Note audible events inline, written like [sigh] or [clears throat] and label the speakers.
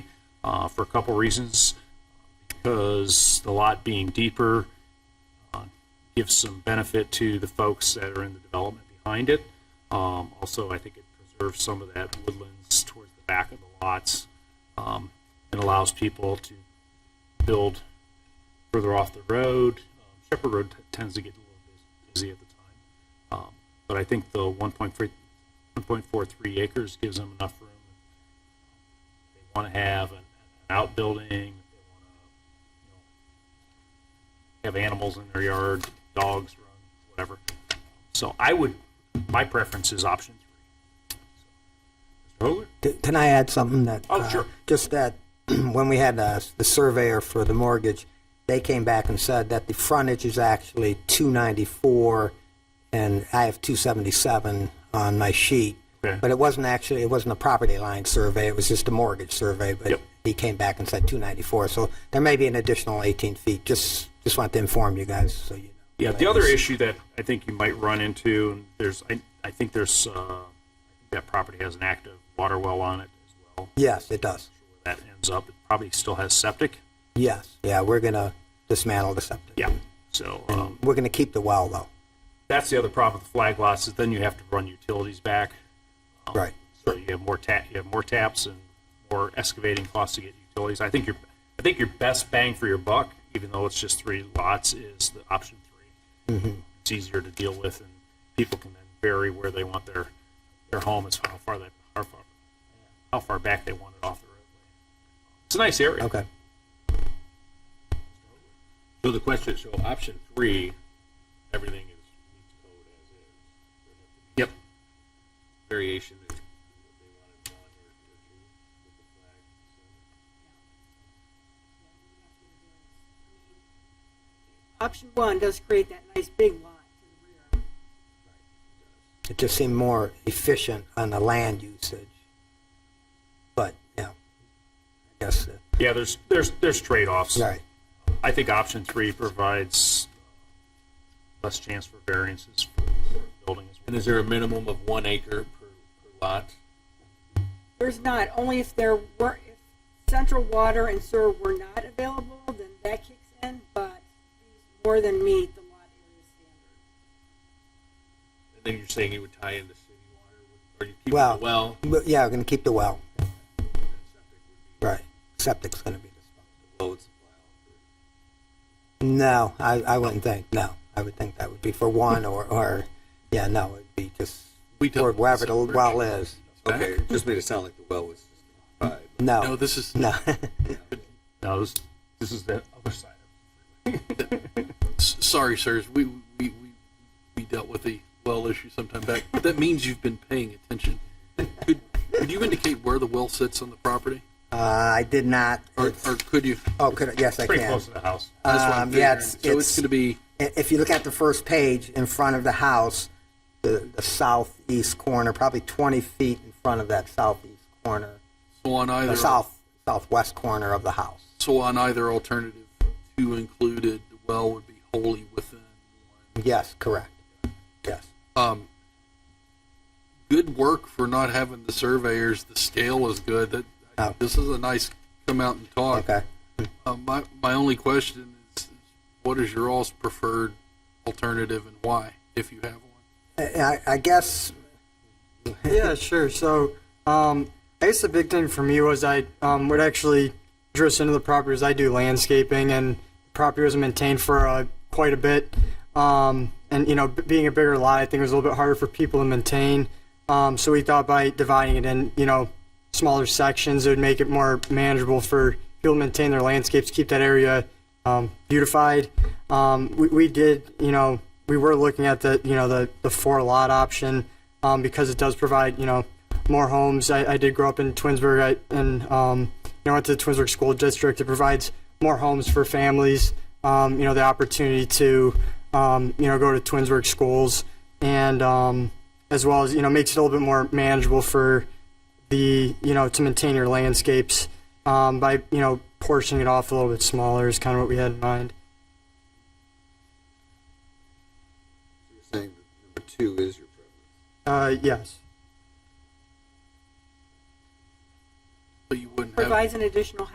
Speaker 1: uh, for a couple reasons. Because the lot being deeper uh, gives some benefit to the folks that are in the development behind it. Um, Also, I think it preserves some of that woodlands towards the back of the lots um, and allows people to build further off the road. Um, Shepherd Road t- tends to get a little bus- busy at the time. Um, But I think the 1.3 1.43 acres gives them enough room. They want to have an an outbuilding, they want to have animals in their yard, dogs, run, whatever. So I would, my preference is option three. So, Mr. Hoagland?
Speaker 2: C- Can I add something that?
Speaker 1: Oh,
Speaker 2: uh,
Speaker 1: sure.
Speaker 2: Just that [clears throat] when we had uh, the surveyor for the mortgage, they came back and said that the frontage is actually 294, and I have 277 on my sheet.
Speaker 1: Okay.
Speaker 2: But it wasn't actually, it wasn't a property line survey, it was just a mortgage survey, but
Speaker 1: Yep.
Speaker 2: he came back and said 294, so there may be an additional 18 feet. Just, just want to inform you guys, so you know.
Speaker 1: Yeah, the other issue that I think you might run into, and there's, I, I think there's, uh, that property has an active water well on it as well.
Speaker 2: Yes, it does.
Speaker 1: Where that ends up, it probably still has septic.
Speaker 2: Yes, yeah, we're going to dismantle the septic.
Speaker 1: Yeah. So, um,
Speaker 2: We're going to keep the well, though.
Speaker 1: that's the other problem with the flag lots is then you have to run utilities back. Oh.
Speaker 2: Right.
Speaker 1: So you have more tap, you have more taps and more excavating costs to get utilities. I think your, I think your best bang for your buck, even though it's just three lots, is the option 3 It's easier to deal with, and people can then vary where they want their their home as how far they how far how far back they want it off the roadway. It's a nice area.
Speaker 2: Okay.
Speaker 3: So the question, so option three, everything is meets code as is. There have to
Speaker 1: Yep.
Speaker 3: be variation that they want in one or, or two with the flag. So
Speaker 4: Option one does create that nice big lot to the rear.
Speaker 2: It just seemed more efficient on the land usage. But, yeah, I guess, uh,
Speaker 1: Yeah. There's there's there's trade offs.
Speaker 2: right,
Speaker 1: I think option three provides less chance for variances for buildings.
Speaker 3: And is there a minimum of one acre per, per lot?
Speaker 4: There's not, only if there were, if central water and sewer were not available, then that kicks in, but these more than meet the lot area standard.
Speaker 3: And then you're saying you would tie in the city water, with- or you keep
Speaker 2: Well-
Speaker 3: the well?
Speaker 2: But, yeah, we're going to keep the well,
Speaker 3: and then septic would be
Speaker 2: right. Septic's going to be the
Speaker 3: the loads of well.
Speaker 2: No, I, I wouldn't think, no. I would think that would be for one or, or, yeah, no, it'd be just
Speaker 5: We
Speaker 2: for
Speaker 5: don't-
Speaker 2: wherever the well is.
Speaker 5: Okay, it just made it sound like the well was just five. No,
Speaker 2: No,
Speaker 5: this is,
Speaker 2: Oh. no. [laughs]
Speaker 1: No, this, this is the other side.
Speaker 5: s- sorry, sirs, we, we, we, we dealt with the well issue sometime back, but that means you've been paying attention. Could, could you indicate where the well sits on the property?
Speaker 2: Uh, I did not,
Speaker 5: Or, or could you?
Speaker 2: oh, could, I- yes, I
Speaker 1: Pretty
Speaker 2: can.
Speaker 1: close to the house.
Speaker 5: That's what I'm
Speaker 2: Um, yeah,
Speaker 5: figuring.
Speaker 2: it's,
Speaker 5: So it's gonna be,
Speaker 2: i- if you look at the first page in front of the house, the, the southeast corner, probably 20 feet in front of that southeast corner,
Speaker 5: so on
Speaker 2: the
Speaker 5: either,
Speaker 2: south southwest corner of the house.
Speaker 5: so on either alternative, two included, the well would be wholly within one.
Speaker 2: Yes, correct. Yes.
Speaker 5: um, good work for not having the surveyors. The scale is good. That
Speaker 2: Oh.
Speaker 5: this is a nice come out and talk.
Speaker 2: Okay.
Speaker 5: Uh, my my only question is, is, what is your all's preferred alternative and why, if you have one?
Speaker 2: I, I- I guess
Speaker 6: yeah, sure. So, um, I guess the big thing for me was I um, would actually dress into the property as I do landscaping, and the property was maintained for uh, quite a bit. Um, and you know, b- being a bigger lot, I think it was a little bit harder for people to maintain. Um, so we thought by dividing it in, you know, smaller sections, it would make it more manageable for people to maintain their landscapes, keep that area um, beautified. Um, we, we did, you know, we were looking at the, you know, the, the four lot option um, because it does provide, you know, more homes. I, I did grow up in Twinsburg I, and, um, you know, went to the Twinsburg School District. It provides more homes for families, um, you know, the opportunity to, um, you know, go to Twinsburg schools and, um, as well as, you know, makes it a little bit more manageable for, the you know to maintain your landscapes um, by you know portioning it off a little bit smaller is kind of what we had in mind.
Speaker 5: You're saying that number two is your preference.
Speaker 6: Uh, yes,
Speaker 5: But you wouldn't have
Speaker 4: Provides an additional